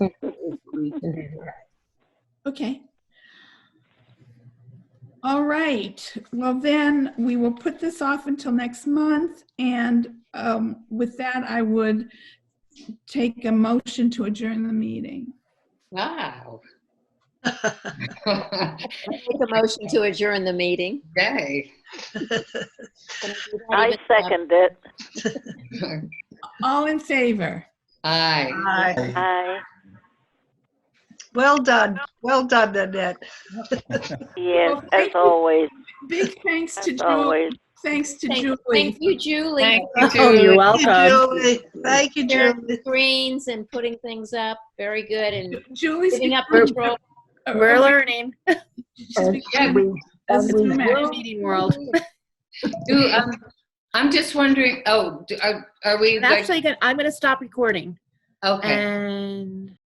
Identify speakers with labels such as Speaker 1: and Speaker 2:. Speaker 1: Okay. All right, well then, we will put this off until next month, and um, with that, I would take a motion to adjourn the meeting.
Speaker 2: Wow.
Speaker 3: Make a motion to adjourn the meeting.
Speaker 2: Yay.
Speaker 4: I second it.
Speaker 1: All in favor?
Speaker 2: Aye.
Speaker 5: Aye.
Speaker 4: I,
Speaker 5: Well done, well done, Annette.
Speaker 4: yes,
Speaker 1: Well,
Speaker 4: as
Speaker 1: thank you.
Speaker 4: always,
Speaker 1: Big thanks to
Speaker 4: as
Speaker 1: Julie,
Speaker 4: always.
Speaker 1: thanks to
Speaker 3: Thank
Speaker 1: Julie.
Speaker 3: thank you, Julie,
Speaker 2: Thank you,
Speaker 6: Oh,
Speaker 2: Julie.
Speaker 6: you're
Speaker 5: Thank you,
Speaker 6: welcome.
Speaker 5: Julie. Thank you,
Speaker 3: for
Speaker 5: Julie.
Speaker 3: screens and putting things up. Very good and
Speaker 1: Julie's.
Speaker 3: giving up
Speaker 1: become-
Speaker 3: control.
Speaker 1: uh,
Speaker 6: We're learning.
Speaker 1: she's
Speaker 2: Yeah,
Speaker 1: become- This is
Speaker 6: We're in
Speaker 1: Max.
Speaker 6: the meeting world.
Speaker 2: Do, um, I'm just wondering, oh, do- are are we?
Speaker 6: And
Speaker 2: like-
Speaker 6: actually, gonna- I'm going to stop recording
Speaker 2: Okay.
Speaker 6: and.